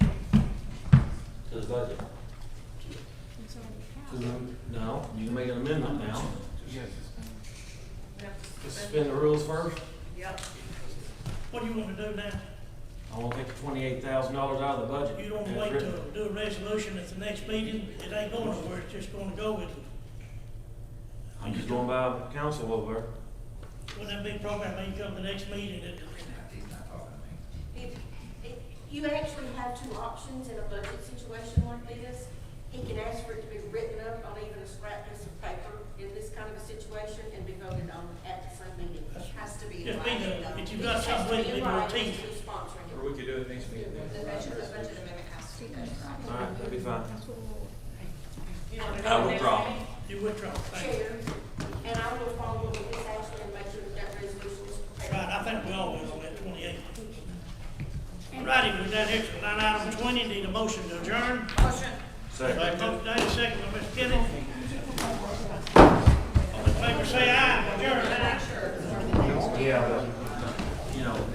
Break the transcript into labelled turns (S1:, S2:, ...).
S1: budget.
S2: It's
S1: Two
S2: already passed.
S1: mem- No, you can make an amendment now. Just Suspend the rules first.
S3: Yep.
S4: What do you want to do now?
S1: I want to take the twenty-eight thousand dollars out of the budget.
S4: You don't
S1: That's
S4: wait
S1: written.
S4: to do a resolution at the next meeting, it ain't going nowhere, it's just gonna go with,
S1: I'm just going by council over there.
S4: when that big program may come to the next meeting, it,
S5: If, if, you actually have two options in a budget situation like this. He can ask for it to be written up on even a scrap piece of paper in this kind of a situation and be voted on at the same meeting.
S3: Has to be.
S4: Just
S3: in
S4: be
S3: writing,
S4: the-
S3: though.
S4: if you've got something with it,
S5: It
S4: you're
S5: has to be in
S4: team.
S5: writing, who's sponsoring it.
S6: Or we could do it next meeting.
S3: The budget, the budget amendment has to be. done.
S1: All right, that'd be fine.
S2: That's what we'll-
S3: You want to do it
S1: I
S3: next
S1: withdraw.
S3: meeting?
S4: you withdraw. Thank you.
S5: Chair, and I will follow up with this action and make sure that that resolution is prepared.
S4: Right, I think we all will on that twenty-eight. Righty, we're down here to line item twenty, need a motion to adjourn.
S3: Motion.
S1: Second.
S4: Motion made, second by Mr. Kenny. All in favor, say aye.